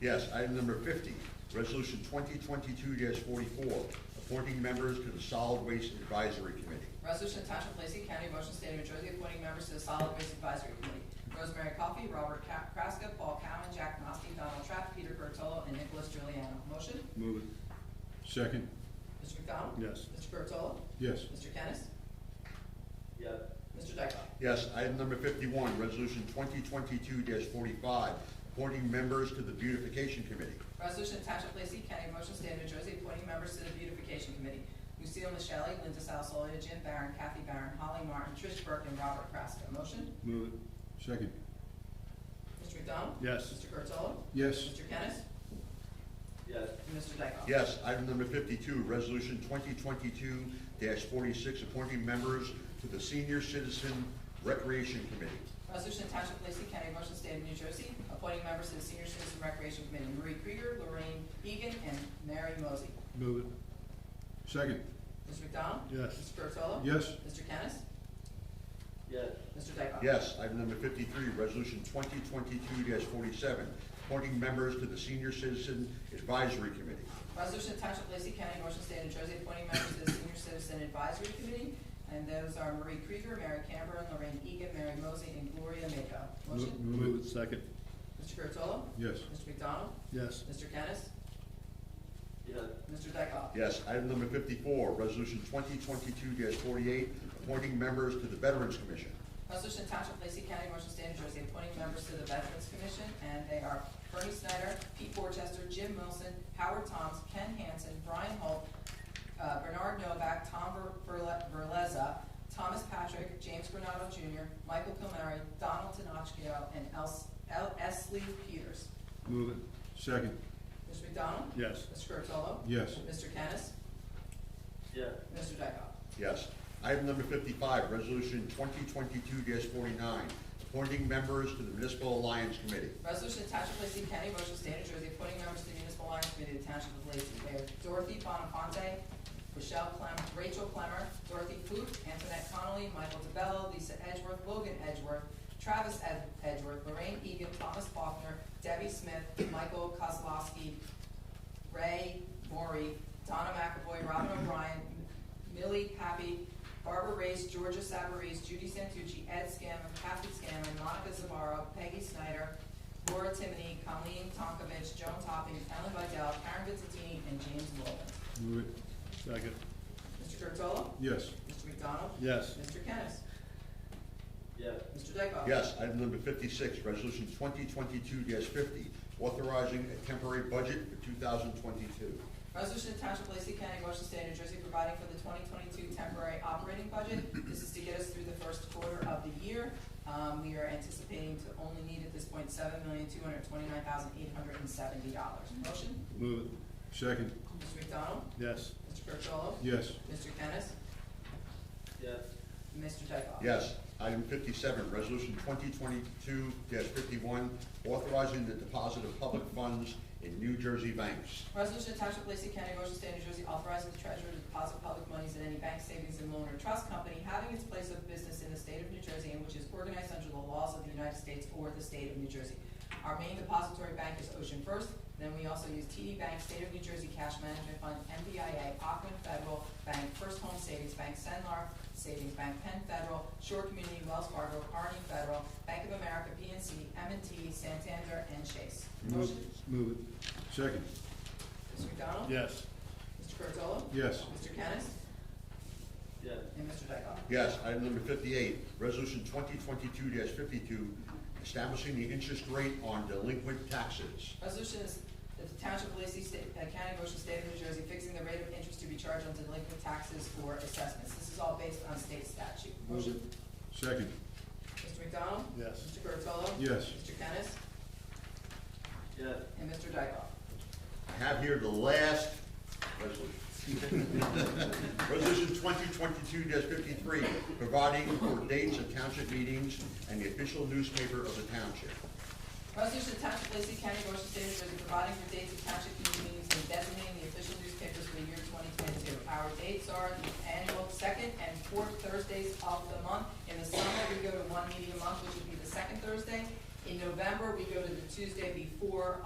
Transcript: Yes, item number fifty, resolution twenty twenty-two forty-four, appointing members to the Solid Waste Advisory Committee. Resolution to Township of Lacey County, Motion State of New Jersey, appointing members to the Solid Waste Advisory Committee. Rosemary Coffey, Robert Ca- Kraska, Paul Cowan, Jack Noski, Donald Trapp, Peter Curatolo, and Nicholas Juliano. Motion? Move it. Second. Mr. McDonald? Yes. Mr. Curatolo? Yes. Mr. Kennis? yes, Mr. Dykoff? Yes, item number fifty-one, resolution twenty twenty-two forty-five, appointing members to the Beautification Committee. Resolution to Township of Lacey County, Motion State of New Jersey, appointing members to the Beautification Committee. Lucille Michele, Linda Salzolia, Jim Barron, Kathy Barron, Holly Martin, Trish Burke, and Robert Kraska. Motion? Move it. Second. Mr. McDonald? Yes. Mr. Curatolo? Yes. Mr. Kennis? yes, And Mr. Dykoff? Yes, item number fifty-two, resolution twenty twenty-two forty-six, appointing members to the Senior Citizen Recreation Committee. Resolution to Township of Lacey County, Motion State of New Jersey, appointing members to the Senior Citizen Recreation Committee, Marie Krieger, Lorraine Egan, and Mary Mosey. Move it. Second. Mr. McDonald? Yes. Mr. Curatolo? Yes. Mr. Kennis? yes, Mr. Dykoff? Yes, item number fifty-three, resolution twenty twenty-two forty-seven, appointing members to the Senior Citizen Advisory Committee. Resolution to Township of Lacey County, Motion State of New Jersey, appointing members to the Senior Citizen Advisory Committee, and those are Marie Krieger, Mary Cameron, Lorraine Egan, Mary Mosey, and Gloria Mako. Motion? Move it. Second. Mr. Curatolo? Yes. Mr. McDonald? Yes. Mr. Kennis? yes, Mr. Dykoff? Yes, item number fifty-four, resolution twenty twenty-two forty-eight, appointing members to the Veterans Commission. Resolution to Township of Lacey County, Motion State of New Jersey, appointing members to the Veterans Commission, and they are Bernie Snyder, Pete Borchester, Jim Wilson, Howard Toms, Ken Hansen, Brian Holt, uh, Bernard Novak, Tom Ver- Verle- Verleza, Thomas Patrick, James Granado Jr., Michael Kilmary, Donald Tenachio, and Els- El- Esley Peters. Move it. Second. Mr. McDonald? Yes. Mr. Curatolo? Yes. Mr. Kennis? yes, Mr. Dykoff? Yes. Item number fifty-five, resolution twenty twenty-two forty-nine, appointing members to the Municipal Alliance Committee. Resolution to Township of Lacey County, Motion State of New Jersey, appointing members to the Municipal Alliance Committee of the Township of Lacey. They are Dorothy Bonafonte, Rochelle Clem, Rachel Clemmer, Dorothy Poot, Antoinette Connolly, Michael DeBello, Lisa Edgeworth, Logan Edgeworth, Travis Ed- Edgeworth, Lorraine Egan, Thomas Faulkner, Debbie Smith, Michael Kozlowski, Ray Maury, Donna McAvoy, Robin O'Brien, Millie Pappy, Barbara Race, Georgia Savarese, Judy Santucci, Ed Scammon, Kathy Scammon, Monica Zavarro, Peggy Snyder, Laura Timoney, Colleen Tonkovich, Joan Topping, Ellen Vidal, Karen Vizzatini, and James Wolman. Move it. Second. Mr. Curatolo? Yes. Mr. McDonald? Yes. Mr. Kennis? yes, Mr. Dykoff? Yes, item number fifty-six, resolution twenty twenty-two fifty, authorizing a temporary budget for two thousand twenty-two. Resolution to Township of Lacey County, Washington State, New Jersey, providing for the 2022 temporary operating budget. This is to get us through the first quarter of the year. Um, We are anticipating to only need at this point $7,229,870. Motion, Move it. Second. Mr. McDonald, Yes. Mr. Curatolo, Yes. Mr. Kennis, yes, and Mr. Dykoff. Yes, item fifty-seven, resolution twenty twenty-two fifty-one, authorizing the deposit of public funds in New Jersey banks. Resolution to Township of Lacey County, Ocean State, New Jersey, authorizing the treasurer to deposit public monies in any bank savings and loan or trust company having its place of business in the state of New Jersey and which is organized under the laws of the United States or the state of New Jersey. Our main depository bank is Ocean First, then we also use TD Bank, State of New Jersey Cash Management Fund, MBIA, Aquin Federal Bank, First Home Savings Bank, Senlar Savings Bank, Penn Federal, Shore Community, Wells Fargo, Arnie Federal, Bank of America, PNC, M&T, Santander, and Chase. Move Motion, it. Move it. Second. Mr. McDonald? Yes. Mr. Curatolo? Yes. Mr. Kennis? yes, And Mr. Dykoff? Yes, item number fifty-eight, resolution twenty twenty-two fifty-two, establishing the interest rate on delinquent taxes. Resolution is that the Township of Lacey State, uh, County, Ocean State of New Jersey, fixing the rate of interest to be charged on delinquent taxes for assessments. This is all based on state statute. Motion? Second. Mr. McDonald? Yes. Mr. Curatolo? Yes. Mr. Kennis? yes, And Mr. Dykoff? I have here the last resolution. Resolution twenty twenty-two fifty-three, providing for dates of township meetings and the official newspaper of the township. Resolution to Township of Lacey County, Ocean State, New Jersey, providing for dates of township committee meetings and designating the official newspapers for the year twenty twenty-two. Our dates are the annual second and fourth Thursdays of the month. In the summer, we go to one meeting a month, which would be the second Thursday. In November, we go to the Tuesday before